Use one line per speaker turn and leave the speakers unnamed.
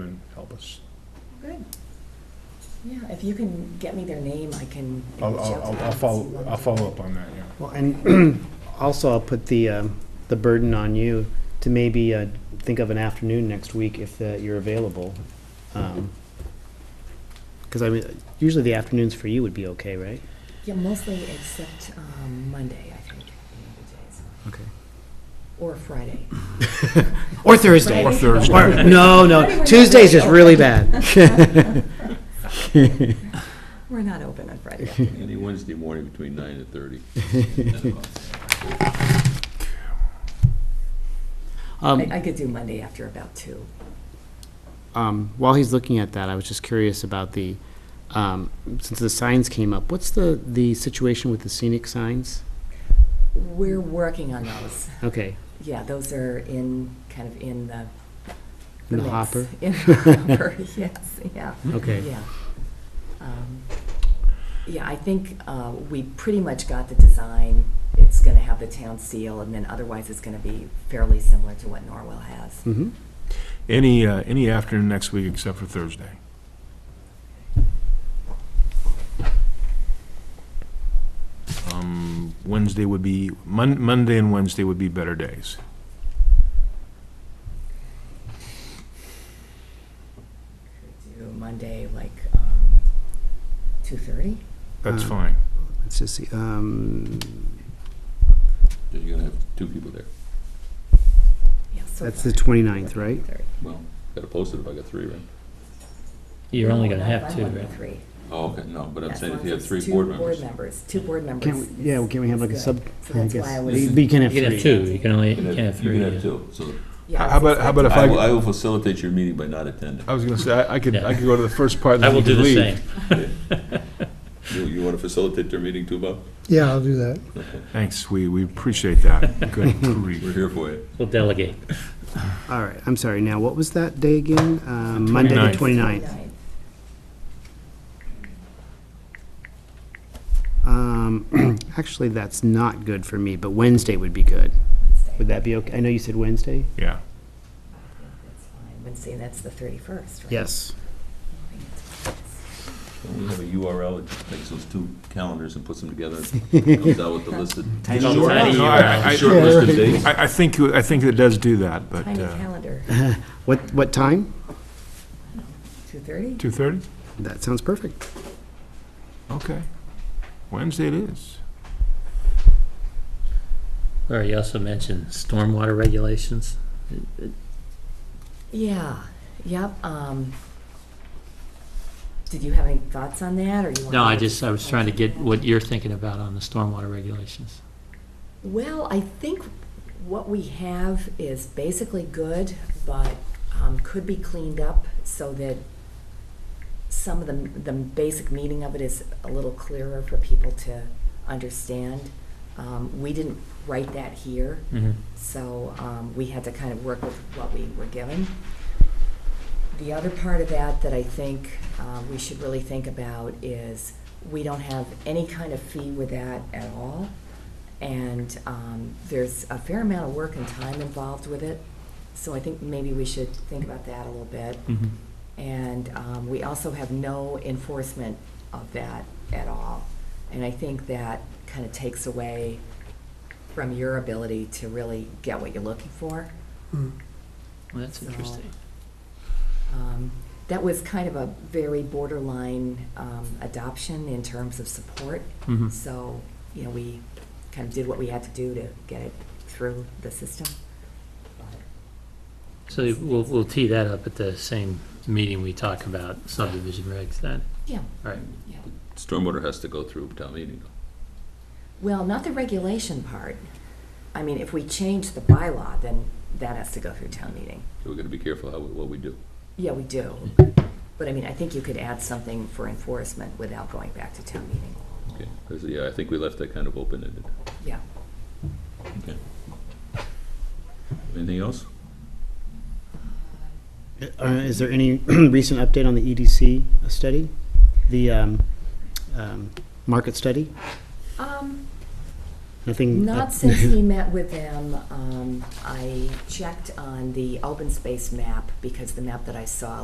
help us.
Good. Yeah, if you can get me their name, I can.
I'll,
reach
I'll,
out to
I'll-
them
I'll
and see
follow,
what
I'll
they-
follow up on that, yeah.
Well, and also I'll put the, um, the burden on you to maybe, uh, think of an afternoon next week if uh, you're available. Um, Cause I mean, usually the afternoons for you would be okay, right?
Yeah, mostly except um, Monday, I think. the other days.
Okay.
Or Friday.
Or Thursday.
Or
Friday.
Thursday.
Friday we're
Or, no, no,
not
Tuesday's just
open.
really bad.
We're not open on Friday.
Any Wednesday morning between nine and thirty.
I,
Um,
I could do Monday after about two.
um, while he's looking at that, I was just curious about the, um, since the signs came up, what's the, the situation with the scenic signs?
We're working on those.
Okay,
Yeah, those are in, kind of in the.
In the
mix.
hopper?
In the hopper, yes, yeah.
okay.
Yeah. Um, Yeah, I think uh, we pretty much got the design. It's going to have the town seal, and then otherwise it's going to be fairly similar to what Norwell has.
hmm
Any, uh, any afternoon next week except for Thursday. Um, Wednesday would be, Mon- Monday and Wednesday would be better days.
Could Do Monday, like, um, 2:30?
That's
Uh,
fine.
Let's just see, um,
You're gonna have two people there.
Yeah, so
that's
far.
the 29th, right?
2:30.
Well, gotta post it if I got three, right?
You're only
No,
gonna
no,
have
I'm
two,
only
right?
three.
Oh, okay, no, but
Yeah,
I'm
as
saying
long
if you
as
have
it's
three
two
board members.
Two board members.
Can't, we- yeah, well,
is-
can't we have
is
like a
good.
sub,
So
I
that's why I
guess,
was-
we can have
You can have
three.
two, you can only, you
You
can have
You
three.
can have
yeah.
two, so
Yeah, I
How
was
about, how about if
I will, I
I,
will facilitate your meeting by not attending.
I was gonna say, I I could,
Yeah.
I could go to the first part and
I
then
will
you
do
could
the
leave.
same.
You, you wanna facilitate their meeting too, Bob?
Yeah, I'll do that.
Thanks, we, we appreciate that. Good
We're
grief.
here for you.
We'll delegate.
All right, I'm sorry, now, what was that day again? Um, Monday the
29th.
29th. Um, actually, that's not good for me, but Wednesday would be good.
Wednesday.
Would that be okay? I know you said Wednesday?
Yeah.
That's fine. Wednesday, that's the 31st, right?
Yes.
Don't we have a URL that takes those two calendars and puts them together and comes out with the listed.
Tiny
Short-
little
tiny
short-
URL.
short list of dates.
I, I think, you- I think it does do that, but,
Tiny
uh,
calendar,
What, what time?
2:30?
two thirty?
That sounds perfect.
Okay. Wednesday it is.
Or you also mentioned stormwater regulations.
Yeah, yep, um, did you have any thoughts on that, or you want?
No, I just, I was trying to get what you're thinking about on the stormwater regulations.
Well, I think what we have is basically good, but, um, could be cleaned up so that some of the, the basic meaning of it is a little clearer for people to understand. Um, we didn't write that here,
Mhm.
So um, we had to kind of work with what we were given. The other part of that that I think um, we should really think about is we don't have any kind of fee with that at all. And um, there's a fair amount of work and time involved with it. So I think maybe we should think about that a little bit.
Mhm.
And um, we also have no enforcement of that at all. And I think that kind of takes away from your ability to really get what you're looking for.
Well, that's
So-
interesting.
Um, That was kind of a very borderline um, adoption in terms of support.
Mhm.
So, you know, we kind of did what we had to do to get it through the system.
So we'll, we'll tee that up at the same meeting we talk about subdivision regs then.
Yeah.
All right.
Yeah.
Stormwater has to go through town meeting.
Well, not the regulation part. I mean, if we change the bylaw, then that has to go through town meeting.
So we're gonna be careful how, we- what we do.
Yeah, we do. But I mean, I think you could add something for enforcement without going back to town meeting.
Okay, 'Cause, yeah, I think we left that kind of open-ended.
Yeah.
Okay. Anything else?
Uh, is there any recent update on the EDC study? The, um, um, market study?
Um,
Nothing?
Not since we met with them. Um, I checked on the open space map because the map that I saw